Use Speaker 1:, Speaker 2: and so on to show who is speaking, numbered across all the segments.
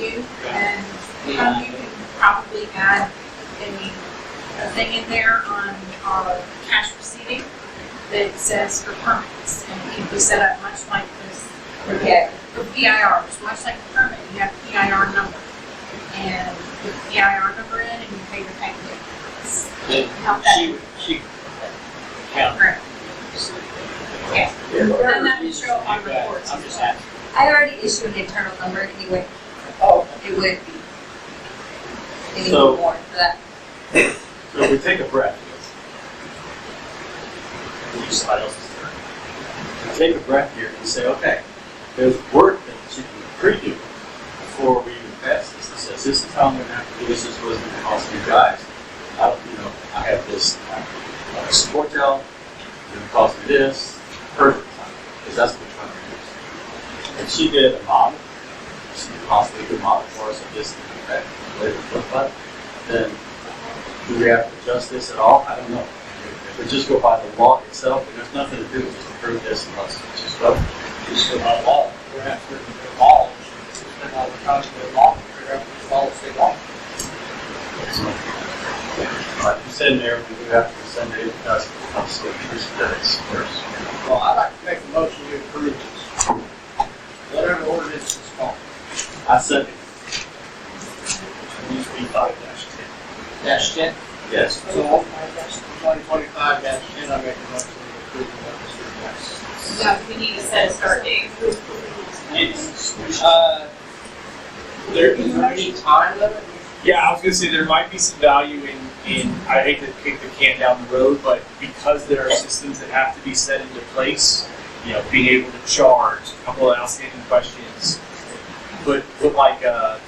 Speaker 1: too, and um, you can probably add a, a thing in there on our cash receipting that says for permits, and it can be set up much like this,
Speaker 2: for cat.
Speaker 1: for PIRs, much like a permit, you have PIR number. And put the PIR number in and you pay your payment. It's Help that,
Speaker 3: She, she, count.
Speaker 1: correct. Yeah. And that
Speaker 3: You
Speaker 1: is show up on
Speaker 3: got it.
Speaker 1: reports
Speaker 3: I'm
Speaker 1: as
Speaker 3: just
Speaker 1: well.
Speaker 3: asking.
Speaker 2: I already issued an internal number anyway,
Speaker 3: Oh,
Speaker 2: it would be. Any
Speaker 4: So-
Speaker 2: more for that?
Speaker 4: So if we take a breath. we Use somebody else's turn. We Take a breath here and say, okay, there's work that should be pre-do before we even pass this. It says, this is how I'm gonna have to do this, this is what's gonna cost you guys. I, you know, I have this, uh, support tell, it's gonna cost me this, perfect, because that's what we're trying to reduce. And she did a model, she possibly could model for us of this, and that, what it would look like. Then do we have to adjust this at all? I don't know. If we just go by the law itself, and there's nothing to do, just approve this and let's just vote.
Speaker 3: Just about law, we're after the law. Spend all the time with law, figure out what the law say law.
Speaker 4: Like you said, Mayor, we do have to send it to us, council, first, that's first.
Speaker 3: Well, I'd like to make a motion to approve this. Whatever ordinance is called,
Speaker 4: I second,
Speaker 3: needs to be five dash ten. Dash ten?
Speaker 4: yes.
Speaker 3: So, twenty twenty-five dash ten, I make a motion to approve the ordinance.
Speaker 1: So we need to set a start date.
Speaker 3: It's, uh, there is any time limit?
Speaker 5: Yeah, I was gonna say there might be some value in, in I hate to kick the can down the road, but because there are systems that have to be set into place, you know, being able to charge, a couple of outstanding questions, but but like uh,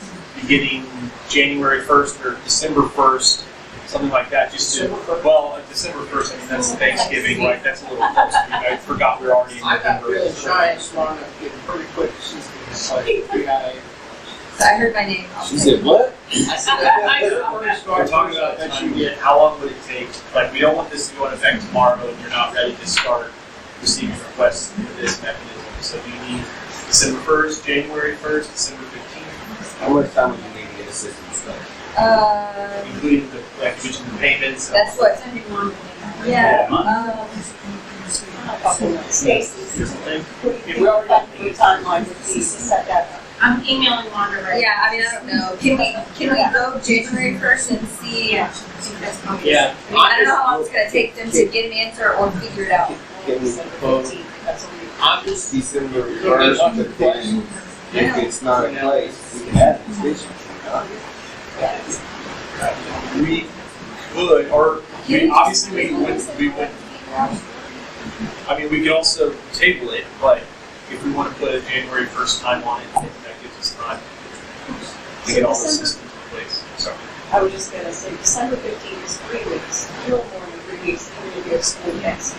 Speaker 5: beginning January first or December first, something like that, just to well, uh, December first, I mean that's Thanksgiving, right? That's a little close. I, mean, I forgot we're already in
Speaker 3: I got
Speaker 5: November.
Speaker 3: really shy and smart enough to get pretty quick since it's like three out of eight.
Speaker 2: So I heard my name. I'll take it.
Speaker 4: what?
Speaker 5: We're talking about that you get, how long would it take? Like, we don't want this to go into effect tomorrow, and you're not ready to start receiving requests through this mechanism. So do you need December first, January first, December fifteenth,
Speaker 6: How much time would you need to get a system started?
Speaker 2: Um,
Speaker 5: including the, like, which the payments? and-
Speaker 2: that's what,
Speaker 1: Sending one.
Speaker 2: yeah,
Speaker 5: Yeah.
Speaker 2: um,
Speaker 1: Stacy's.
Speaker 3: If we already got the timeline,
Speaker 1: I'm emailing Wanda right
Speaker 2: yeah, I mean, I don't know, can we, can we go January first and see? I
Speaker 3: Yeah.
Speaker 2: mean, I don't know how long it's gonna take them to get an answer or figure it out.
Speaker 6: Can we vote
Speaker 3: I'm just
Speaker 6: December first, but then if it's not in place, we can add an extension.
Speaker 5: We could, or, I mean, obviously, we would, we would, I mean, we could also table it, but if we want to put a January first time on it, that gives us time to get all the systems in place, so.
Speaker 7: I was just gonna say, December fifteenth is three weeks, no more than three weeks, and then you have school next.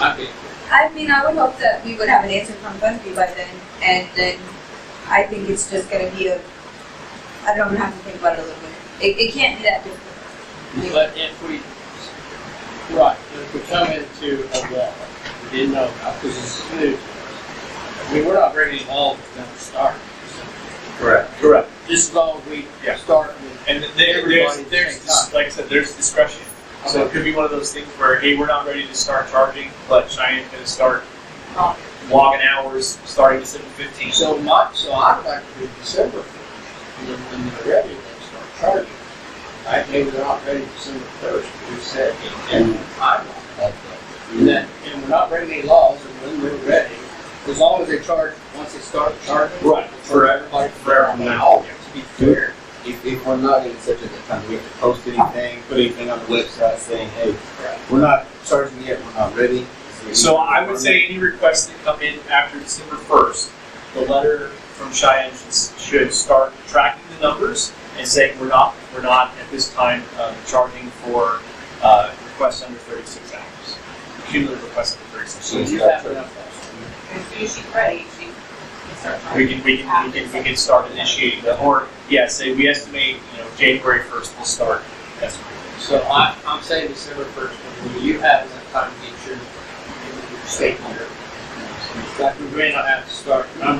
Speaker 3: I mean,
Speaker 2: I mean, I would hope that we would have an answer from Bungie by then, and then I think it's just gonna be a, I don't know, have to think about it a little bit. It, it can't be that difficult.
Speaker 3: but if we, right, if we come into a law, we didn't know about, because it's new to us. I mean, we're not ready at all to start.
Speaker 4: Correct.
Speaker 5: Correct.
Speaker 3: This law, we
Speaker 5: Yeah.
Speaker 3: start with.
Speaker 5: And th- there, there's, there's, dis- like I said, there's discretion. So it could be one of those things where, hey, we're not ready to start charging, but Cheyenne's gonna start
Speaker 2: Um,
Speaker 5: logging hours starting December fifteenth.
Speaker 3: So not, so I'd like to do December first, and then when they're ready, they start charging. Right, maybe they're not ready December first, we said, and I'm not. And then, and we're not breaking any laws, and when they're ready, as long as they charge, once they start charging.
Speaker 5: Right, forever,
Speaker 3: Like
Speaker 5: forever
Speaker 3: now,
Speaker 5: now.
Speaker 3: to be fair.
Speaker 6: If, if we're not in such a time, we have to post anything, put anything on the website saying, hey, we're not charging yet, we're not ready.
Speaker 5: So I would say any requests that come in after December first, the letter from Cheyenne should, should start tracking the numbers and saying we're not, we're not at this time, um, charging for, uh, requests under thirty-six hours. Cumulative requests under thirty-six.
Speaker 3: So you have enough.
Speaker 7: As soon as she's ready, she can start.
Speaker 5: We can, we can, we can, we can start initiating that, or, yeah, say, we estimate, you know, January first will start. That's
Speaker 3: So I, I'm saying December first, when you have enough time to get your, your statement. Like, we may not have to start, I'm